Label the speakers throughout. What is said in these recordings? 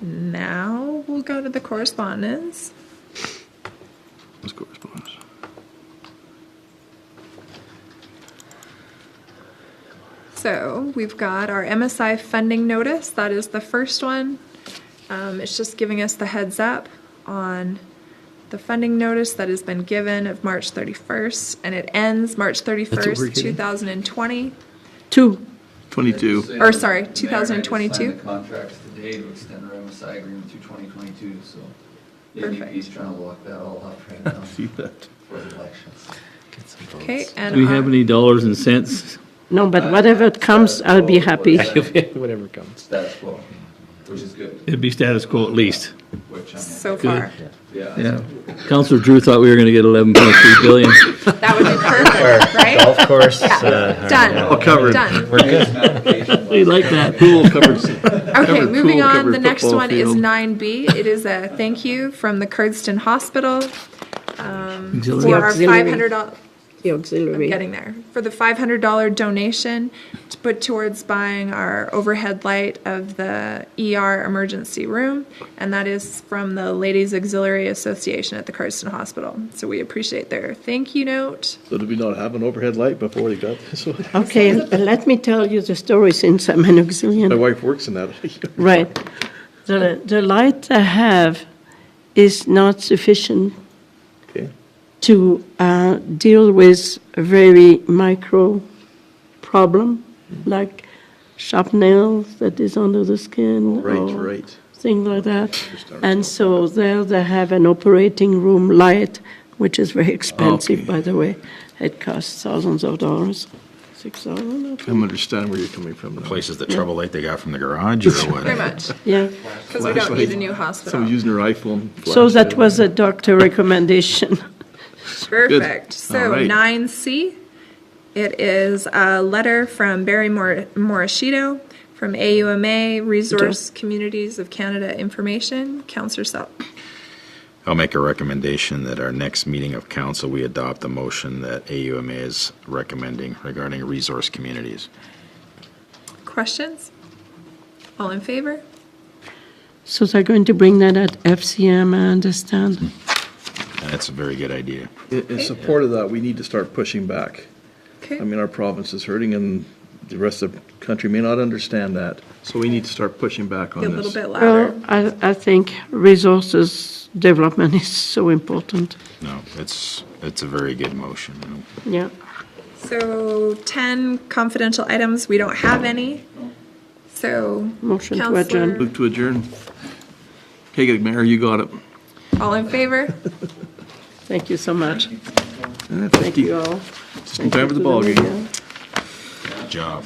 Speaker 1: Now we'll go to the correspondence.
Speaker 2: This correspondence.
Speaker 1: So we've got our MSI funding notice. That is the first one. Um, it's just giving us the heads up on the funding notice that has been given of March 31st, and it ends March
Speaker 2: we're
Speaker 1: 31st,
Speaker 2: getting?
Speaker 1: 2020.
Speaker 3: Two.
Speaker 2: 22.
Speaker 4: Say
Speaker 1: Or
Speaker 4: that
Speaker 1: sorry,
Speaker 4: the mayor had to
Speaker 1: 2022.
Speaker 4: sign the contracts today to extend our MSI agreement through 2022, so the
Speaker 1: Perfect.
Speaker 4: NDP's trying to lock that all up right now
Speaker 2: See that?
Speaker 4: for the elections.
Speaker 1: Okay, and
Speaker 5: Do we have
Speaker 1: our-
Speaker 5: any dollars and cents?
Speaker 3: No, but whatever it comes, I'll be happy.
Speaker 6: whatever comes.
Speaker 4: Status quo, which is good,
Speaker 5: It'd be status quo at least.
Speaker 4: which I'm,
Speaker 1: so
Speaker 5: Good.
Speaker 1: far,
Speaker 4: yeah.
Speaker 5: Yeah. Counselor Drew thought we were going to get 11.3 billion.
Speaker 1: that would be perfect, right?
Speaker 6: Golf course.
Speaker 5: uh,
Speaker 1: Done,
Speaker 2: All covered.
Speaker 1: done.
Speaker 6: We're good.
Speaker 5: We like that. Pool covered.
Speaker 1: Okay,
Speaker 2: Covered
Speaker 1: moving
Speaker 2: pool,
Speaker 1: on,
Speaker 2: covered
Speaker 1: the next
Speaker 2: football
Speaker 1: one is
Speaker 2: field.
Speaker 1: 9B. It is a thank you from the Curdston Hospital um,
Speaker 5: Auxiliary.
Speaker 1: for our
Speaker 3: Auxiliary.
Speaker 1: $500,
Speaker 3: The
Speaker 1: I'm
Speaker 3: auxiliary.
Speaker 1: getting there, for the $500 donation to put towards buying our overhead light of the ER emergency room, and that is from the Ladies Auxiliary Association at the Curdston Hospital. So we appreciate their thank you note.
Speaker 2: So did we not have an overhead light before they got this one?
Speaker 3: Okay, but let me tell you the story since I'm an auxiliary.
Speaker 2: My wife works in that.
Speaker 3: Right. The, the light I have is not sufficient
Speaker 2: Okay.
Speaker 3: to uh, deal with a very micro problem, like sharp nails that is under the skin.
Speaker 2: Right,
Speaker 3: or
Speaker 2: right.
Speaker 3: Thing like that.
Speaker 2: Understand.
Speaker 3: And so there they have an operating room light, which is very expensive, by the way. It costs thousands of dollars, six thousand,
Speaker 2: I'm understanding where you're coming from now.
Speaker 7: Places that trouble light they got from the garage or what?
Speaker 1: Pretty much,
Speaker 3: yeah.
Speaker 1: because we don't need a new hospital.
Speaker 2: Someone using her iPhone.
Speaker 3: So
Speaker 2: flashlight.
Speaker 3: that was a doctor recommendation.
Speaker 1: Perfect.
Speaker 2: All
Speaker 1: So
Speaker 2: right.
Speaker 1: nine C, it is a letter from Barry Mor- Morishito from AUMA Resource Communities of Canada Information. Counselor Selk.
Speaker 7: I'll make a recommendation that our next meeting of council, we adopt the motion that AUMA is recommending regarding resource communities.
Speaker 1: Questions? All in favor?
Speaker 3: So they're going to bring that at FCM, I understand.
Speaker 7: And that's a very good idea.
Speaker 2: In, in support of that, we need to start pushing back.
Speaker 1: Okay.
Speaker 2: I mean, our province is hurting and the rest of the country may not understand that. So we need to start pushing back on
Speaker 1: Be a
Speaker 2: this.
Speaker 1: little bit louder.
Speaker 3: Well, I, I think resources development is so important,
Speaker 7: No, it's, it's a very good motion. you know.
Speaker 3: yeah.
Speaker 1: So ten confidential items. We don't have any. So
Speaker 3: Motion to adjourn.
Speaker 1: Counselor,
Speaker 2: Move to adjourn. Okay, good, Mayor, you got it.
Speaker 1: all in favor?
Speaker 3: Thank you so much.
Speaker 2: Thank
Speaker 3: You all.
Speaker 2: Just in time for the ballgame.
Speaker 7: Good job.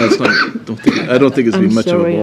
Speaker 2: That's not, don't think, I don't think it's been
Speaker 3: I'm
Speaker 2: much of a
Speaker 3: sorry.
Speaker 2: ball.